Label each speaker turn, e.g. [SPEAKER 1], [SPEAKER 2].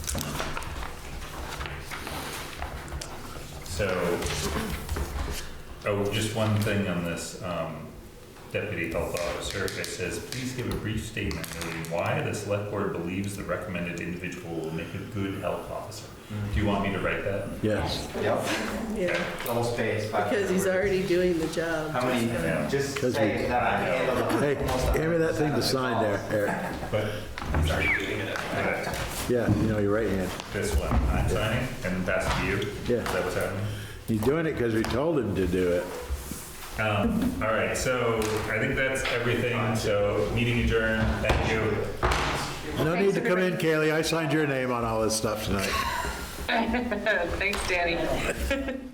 [SPEAKER 1] So, oh, just one thing on this, um, deputy health officer, it says, please give a brief statement noting why the select board believes the recommended individual will make a good health officer. Do you want me to write that?
[SPEAKER 2] Yes,
[SPEAKER 3] Yep,
[SPEAKER 4] Yeah,
[SPEAKER 3] double space. but-
[SPEAKER 4] because he's already doing the job.
[SPEAKER 3] How many,
[SPEAKER 1] Yeah.
[SPEAKER 3] just
[SPEAKER 2] Because
[SPEAKER 3] say
[SPEAKER 2] we-
[SPEAKER 3] that I handled.
[SPEAKER 2] hey,
[SPEAKER 3] almost
[SPEAKER 2] hand me that thing
[SPEAKER 3] 100%
[SPEAKER 2] to
[SPEAKER 3] of
[SPEAKER 2] sign there,
[SPEAKER 3] calls.
[SPEAKER 2] Eric.
[SPEAKER 1] But
[SPEAKER 5] I'm sorry, you're doing it.
[SPEAKER 1] uh,
[SPEAKER 2] Yeah, you know, your right hand.
[SPEAKER 1] this one, I'm signing and that's to you?
[SPEAKER 2] Yeah.
[SPEAKER 1] Is that what's happening?
[SPEAKER 2] He's doing it because we told him to do it.
[SPEAKER 1] Um, all right, so I think that's everything. So meeting adjourned. Thank you.
[SPEAKER 2] No need
[SPEAKER 6] Thanks,
[SPEAKER 2] to come in,
[SPEAKER 6] everybody.
[SPEAKER 2] Kaylee, I signed your name on all this stuff tonight.
[SPEAKER 6] Thanks, Danny.